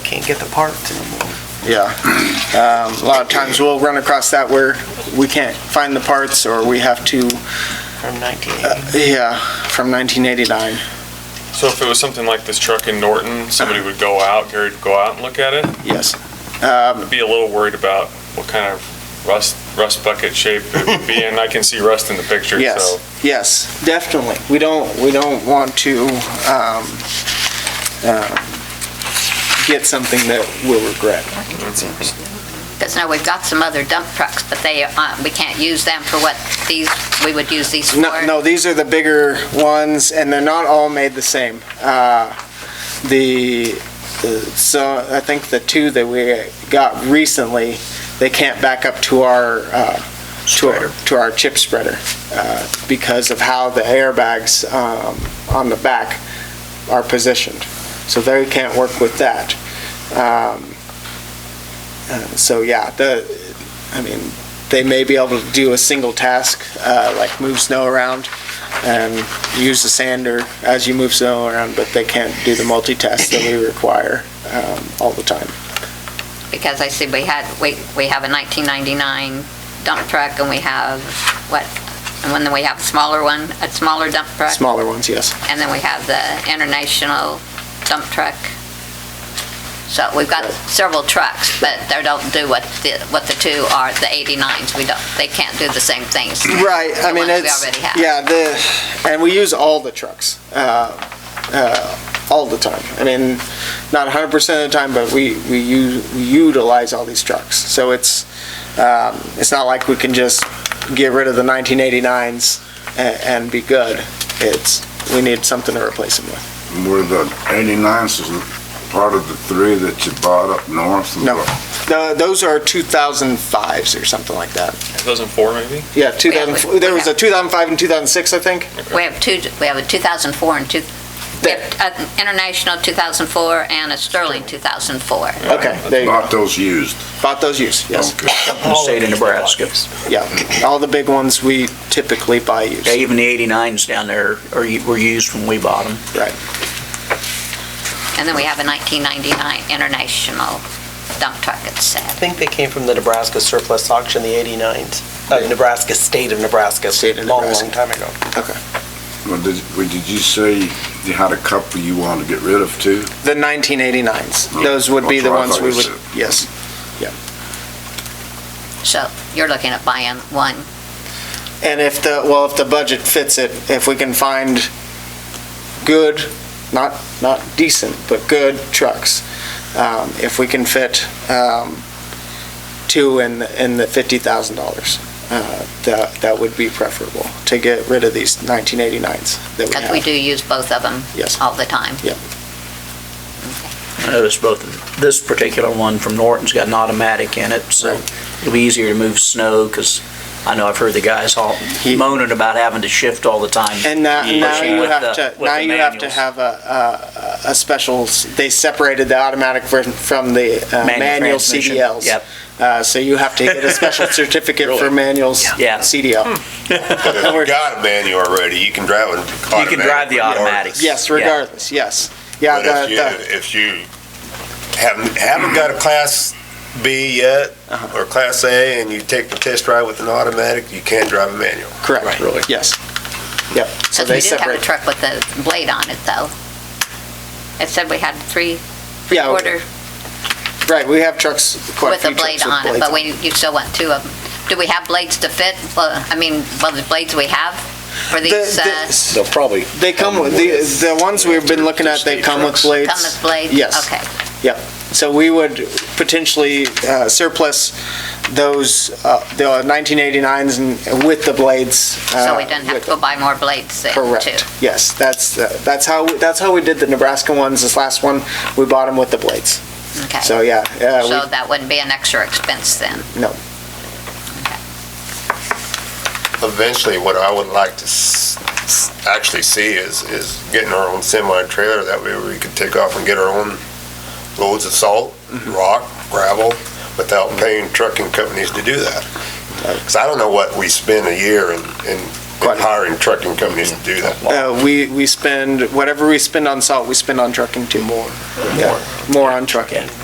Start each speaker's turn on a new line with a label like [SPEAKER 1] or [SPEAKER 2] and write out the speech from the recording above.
[SPEAKER 1] get the part.
[SPEAKER 2] Yeah. Um, A lot of times we'll run across that where we can't find the parts or we have to,
[SPEAKER 1] from 1980.
[SPEAKER 2] yeah, from 1989.
[SPEAKER 3] So if it was something like this truck in Norton, somebody would go out, Gary would go out and look at it?
[SPEAKER 2] Yes. Um,
[SPEAKER 3] I'd be a little worried about what kind of rust, rust bucket shape it would be in. I can see rust in the picture, so.
[SPEAKER 2] Yes, yes, definitely. We don't, we don't want to um, uh, get something that we'll regret.
[SPEAKER 4] Because now we've got some other dump trucks, but they, uh, we can't use them for what these, we would use these for.
[SPEAKER 2] No, no, these are the bigger ones, and they're not all made the same. Uh, The, uh, so I think the two that we got recently, they can't back up to our, uh, to our, to our chip spreader uh, because of how the airbags um, on the back are positioned. So they can't work with that. Um, uh, So, yeah, the, I mean, they may be able to do a single task, uh, like move snow around and use the sander as you move snow around, but they can't do the multitask that we require um, all the time.
[SPEAKER 4] Because I see we had, we, we have a 1999 dump truck and we have, what, and when we have a smaller one, a smaller dump truck?
[SPEAKER 2] Smaller ones, yes.
[SPEAKER 4] And then we have the international dump truck. So we've got several trucks, but they don't do what the, what the two are, the 89s, we don't, they can't do the same things.
[SPEAKER 2] Right, I
[SPEAKER 4] The
[SPEAKER 2] mean,
[SPEAKER 4] ones we
[SPEAKER 2] it's,
[SPEAKER 4] already have.
[SPEAKER 2] yeah, the, and we use all the trucks, uh, uh, all the time. I mean, not 100% of the time, but we, we u- we utilize all these trucks. So it's, um, it's not like we can just get rid of the 1989s a- and be good. It's, we need something to replace them with.
[SPEAKER 5] Were the 89s is part of the three that you bought up north?
[SPEAKER 2] No. No, Those are 2005s or something like that.
[SPEAKER 3] 2004 maybe?
[SPEAKER 2] Yeah, 2004, there was a 2005 and 2006, I think.
[SPEAKER 4] We have two, we have a 2004 and two, we have an international 2004 and a Sterling 2004.
[SPEAKER 2] Okay, there you go.
[SPEAKER 5] Bought those used?
[SPEAKER 2] Bought those used, yes.
[SPEAKER 5] Okay.
[SPEAKER 6] the state of Nebraska.
[SPEAKER 2] Yeah, all the big ones we typically buy used.
[SPEAKER 6] Yeah, even the 89s down there are, were used when we bought them.
[SPEAKER 2] Right.
[SPEAKER 4] And then we have a 1999 international dump truck, it
[SPEAKER 1] I
[SPEAKER 4] said.
[SPEAKER 1] think they came from the Nebraska surplus auction, the 89s, uh, Nebraska, state of Nebraska.
[SPEAKER 2] State of
[SPEAKER 1] long,
[SPEAKER 2] Nebraska.
[SPEAKER 1] Long time ago.
[SPEAKER 5] Well, did, well, did you say you had a couple you wanted to get rid of too?
[SPEAKER 2] The 1989s, those would be the
[SPEAKER 5] Hmm.
[SPEAKER 2] ones
[SPEAKER 5] That's what I
[SPEAKER 2] we
[SPEAKER 5] thought
[SPEAKER 2] would,
[SPEAKER 5] you
[SPEAKER 2] yes.
[SPEAKER 4] So you're looking at buying one.
[SPEAKER 2] And if the, well, if the budget fits it, if we can find good, not, not decent, but good trucks, um, if we can fit, um, two in, the- in the fifty thousand dollars, uh, that, that would be preferable, to get rid of these nineteen eighty-nines that we
[SPEAKER 4] Because we
[SPEAKER 2] have.
[SPEAKER 4] do use both of them
[SPEAKER 2] Yes.
[SPEAKER 4] all the time.
[SPEAKER 6] I noticed both, this particular one from Norton's got an automatic in it, so
[SPEAKER 2] Right.
[SPEAKER 6] it'll be easier to move snow, because I know I've heard the guys all
[SPEAKER 2] He-
[SPEAKER 6] moaning about having to shift all the time.
[SPEAKER 2] And now, now
[SPEAKER 6] pushing
[SPEAKER 2] you
[SPEAKER 6] with
[SPEAKER 2] have
[SPEAKER 6] the-
[SPEAKER 2] to,
[SPEAKER 6] with
[SPEAKER 2] now
[SPEAKER 6] the
[SPEAKER 2] you have to
[SPEAKER 6] manuals.
[SPEAKER 2] have a, a, a special, s- they separated the automatic ver- from the uh,
[SPEAKER 6] Manual
[SPEAKER 2] manual
[SPEAKER 6] transmission.
[SPEAKER 2] CDLs.
[SPEAKER 6] Yep.
[SPEAKER 2] Uh, so you have to get a special certificate for manuals
[SPEAKER 6] Yeah. Hmm.
[SPEAKER 2] CDL.
[SPEAKER 7] If you got a manual already, you can drive an
[SPEAKER 6] You
[SPEAKER 7] automatic.
[SPEAKER 6] can drive the automatics.
[SPEAKER 2] Yes,
[SPEAKER 6] Yeah.
[SPEAKER 2] regardless, yes. Yeah,
[SPEAKER 7] But if
[SPEAKER 2] the,
[SPEAKER 7] you,
[SPEAKER 2] the,
[SPEAKER 7] if you haven't, haven't got a class B yet,
[SPEAKER 2] Uh-huh.
[SPEAKER 7] or class A, and you take the test drive with an automatic, you can drive a manual.
[SPEAKER 2] correct, yes. Yep, so
[SPEAKER 4] Because
[SPEAKER 2] they
[SPEAKER 4] we did have a
[SPEAKER 2] separate.
[SPEAKER 4] truck with a blade on it, though. It said we had three
[SPEAKER 2] Yeah,
[SPEAKER 4] quarter
[SPEAKER 2] Right, we have trucks, quite a
[SPEAKER 4] with a
[SPEAKER 2] few
[SPEAKER 4] blade
[SPEAKER 2] trucks with
[SPEAKER 4] on
[SPEAKER 2] blades
[SPEAKER 4] it, but we, you still want two of them. Do we have blades to fit? Well, I mean, well, the blades we have for
[SPEAKER 2] The-
[SPEAKER 4] these, uh,
[SPEAKER 2] the-
[SPEAKER 4] come
[SPEAKER 8] They'll probably,
[SPEAKER 2] They come with, the, the ones we've been looking at, they come with blades.
[SPEAKER 4] with blades?
[SPEAKER 2] Yes.
[SPEAKER 4] Okay.
[SPEAKER 2] Yep. So we would potentially uh, surplus those, uh, the 1989s and with the blades.
[SPEAKER 4] So
[SPEAKER 2] uh,
[SPEAKER 4] we didn't have
[SPEAKER 2] with-
[SPEAKER 4] to go buy more blades then, too?
[SPEAKER 2] Correct. Yes, that's, the- that's how, we- that's how we did the Nebraska ones, this last one. We bought them with the blades.
[SPEAKER 4] Okay.
[SPEAKER 2] So, yeah. uh, we-
[SPEAKER 4] So that wouldn't be an extra expense then?
[SPEAKER 7] Eventually, what I would like to s- s- actually see is, is getting our own semi-trailer, that way we could take off and get our own loads of salt, rock, gravel, without paying trucking companies to do that. Because I don't know what we spend a year in, in in
[SPEAKER 2] Quite a-
[SPEAKER 7] hiring trucking companies to do that.
[SPEAKER 2] Uh, We, we spend, whatever we spend on salt, we spend on trucking too. More. More on trucking.